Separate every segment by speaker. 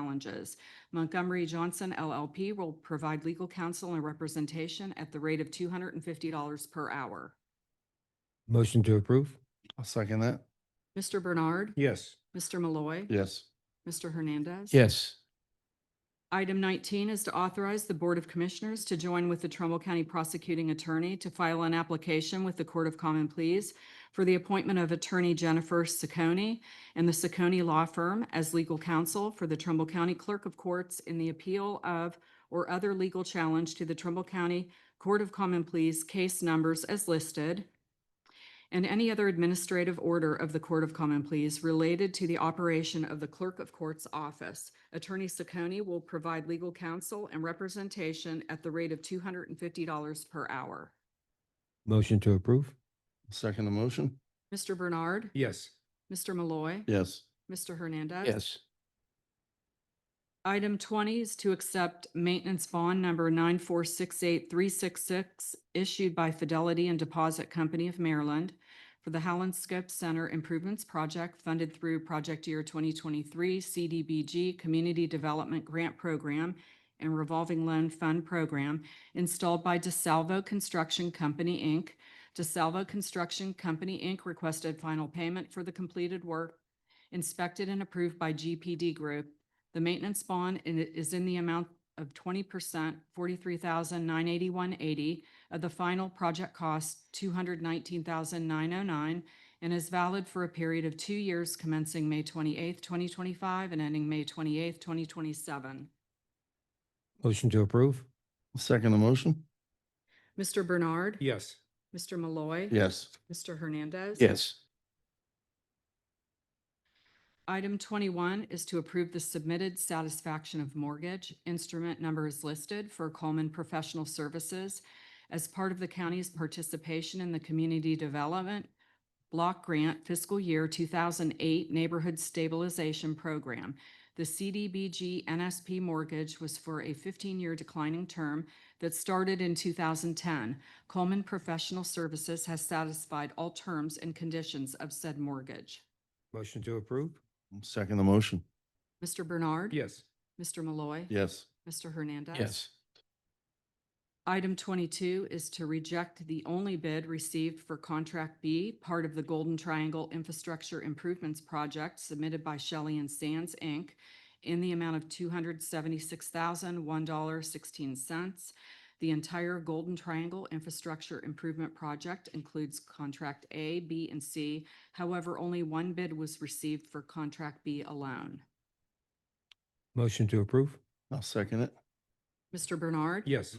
Speaker 1: challenges. Montgomery Johnson LLP will provide legal counsel and representation at the rate of two hundred and fifty dollars per hour.
Speaker 2: Motion to approve?
Speaker 3: I'll second that.
Speaker 1: Mr. Bernard.
Speaker 2: Yes.
Speaker 1: Mr. Malloy.
Speaker 3: Yes.
Speaker 1: Mr. Hernandez.
Speaker 2: Yes.
Speaker 1: Item nineteen is to authorize the Board of Commissioners to join with the Trumbull County Prosecuting Attorney to file an application with the Court of Common Pleas for the appointment of Attorney Jennifer Sacconi and the Sacconi Law Firm as legal counsel for the Trumbull County Clerk of Courts in the appeal of or other legal challenge to the Trumbull County Court of Common Pleas case numbers as listed and any other administrative order of the Court of Common Pleas related to the operation of the Clerk of Court's office. Attorney Sacconi will provide legal counsel and representation at the rate of two hundred and fifty dollars per hour.
Speaker 2: Motion to approve?
Speaker 3: Second the motion?
Speaker 1: Mr. Bernard.
Speaker 2: Yes.
Speaker 1: Mr. Malloy.
Speaker 3: Yes.
Speaker 1: Mr. Hernandez.
Speaker 2: Yes.
Speaker 1: Item twenty is to accept maintenance bond number nine four six eight three six six issued by Fidelity and Deposit Company of Maryland for the Howland Scope Center Improvements Project funded through Project Year twenty twenty-three CDBG Community Development Grant Program and Revolving Loan Fund Program installed by DeSalvo Construction Company, Inc. DeSalvo Construction Company, Inc. requested final payment for the completed work inspected and approved by GPD Group the maintenance bond in- is in the amount of twenty percent, forty-three thousand nine eighty-one eighty of the final project cost, two hundred nineteen thousand nine oh nine, and is valid for a period of two years commencing May twenty-eighth, twenty twenty-five and ending May twenty-eighth, twenty twenty-seven.
Speaker 2: Motion to approve?
Speaker 3: Second the motion?
Speaker 1: Mr. Bernard.
Speaker 2: Yes.
Speaker 1: Mr. Malloy.
Speaker 3: Yes.
Speaker 1: Mr. Hernandez.
Speaker 2: Yes.
Speaker 1: Item twenty-one is to approve the submitted satisfaction of mortgage. Instrument number is listed for Coleman Professional Services as part of the county's participation in the Community Development Block Grant Fiscal Year two thousand eight Neighborhood Stabilization Program. The CDBG NSP mortgage was for a fifteen-year declining term that started in two thousand ten. Coleman Professional Services has satisfied all terms and conditions of said mortgage.
Speaker 2: Motion to approve?
Speaker 3: Second the motion?
Speaker 1: Mr. Bernard.
Speaker 2: Yes.
Speaker 1: Mr. Malloy.
Speaker 3: Yes.
Speaker 1: Mr. Hernandez.
Speaker 2: Yes.
Speaker 1: Item twenty-two is to reject the only bid received for Contract B, part of the Golden Triangle Infrastructure Improvements Project submitted by Shelley and Sands, Inc. in the amount of two hundred seventy-six thousand, one dollar, sixteen cents. The entire Golden Triangle Infrastructure Improvement Project includes Contract A, B, and C. However, only one bid was received for Contract B alone.
Speaker 2: Motion to approve?
Speaker 3: I'll second it.
Speaker 1: Mr. Bernard.
Speaker 2: Yes.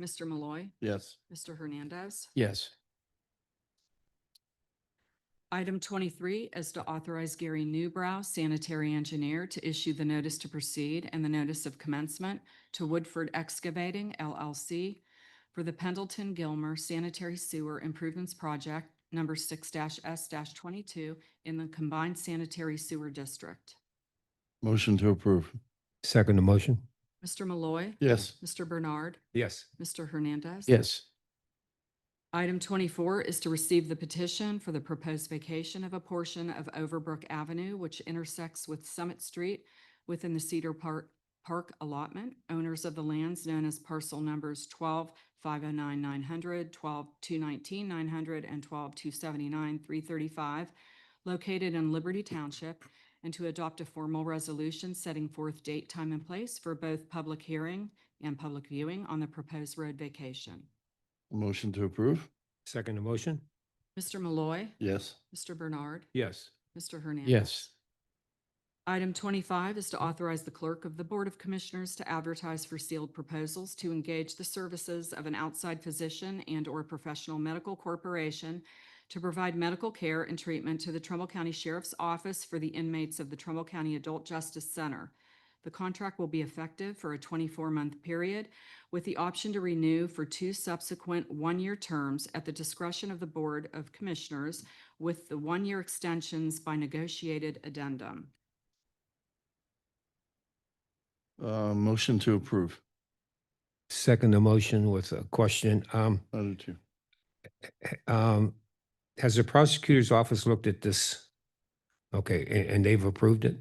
Speaker 1: Mr. Malloy.
Speaker 3: Yes.
Speaker 1: Mr. Hernandez.
Speaker 2: Yes.
Speaker 1: Item twenty-three is to authorize Gary Newbrow, sanitary engineer, to issue the notice to proceed and the notice of commencement to Woodford Excavating LLC for the Pendleton Gilmer Sanitary Sewer Improvements Project number six S twenty-two in the Combined Sanitary Sewer District.
Speaker 3: Motion to approve?
Speaker 2: Second the motion?
Speaker 1: Mr. Malloy.
Speaker 3: Yes.
Speaker 1: Mr. Bernard.
Speaker 2: Yes.
Speaker 1: Mr. Hernandez.
Speaker 2: Yes.
Speaker 1: Item twenty-four is to receive the petition for the proposed vacation of a portion of Overbrook Avenue, which intersects with Summit Street within the Cedar Park, Park allotment. Owners of the lands known as parcel numbers twelve five oh nine nine hundred, twelve two nineteen nine hundred, and twelve two seventy-nine three thirty-five, located in Liberty Township, and to adopt a formal resolution setting forth date, time, and place for both public hearing and public viewing on the proposed road vacation.
Speaker 3: Motion to approve?
Speaker 2: Second the motion?
Speaker 1: Mr. Malloy.
Speaker 3: Yes.
Speaker 1: Mr. Bernard.
Speaker 2: Yes.
Speaker 1: Mr. Hernandez.
Speaker 2: Yes.
Speaker 1: Item twenty-five is to authorize the clerk of the Board of Commissioners to advertise for sealed proposals to engage the services of an outside physician and/or professional medical corporation to provide medical care and treatment to the Trumbull County Sheriff's Office for the inmates of the Trumbull County Adult Justice Center. The contract will be effective for a twenty-four month period with the option to renew for two subsequent one-year terms at the discretion of the Board of Commissioners with the one-year extensions by negotiated addendum.
Speaker 3: Uh, motion to approve?
Speaker 2: Second the motion with a question. Um,
Speaker 3: I do too.
Speaker 2: um, has the prosecutor's office looked at this? Okay, a- and they've approved it?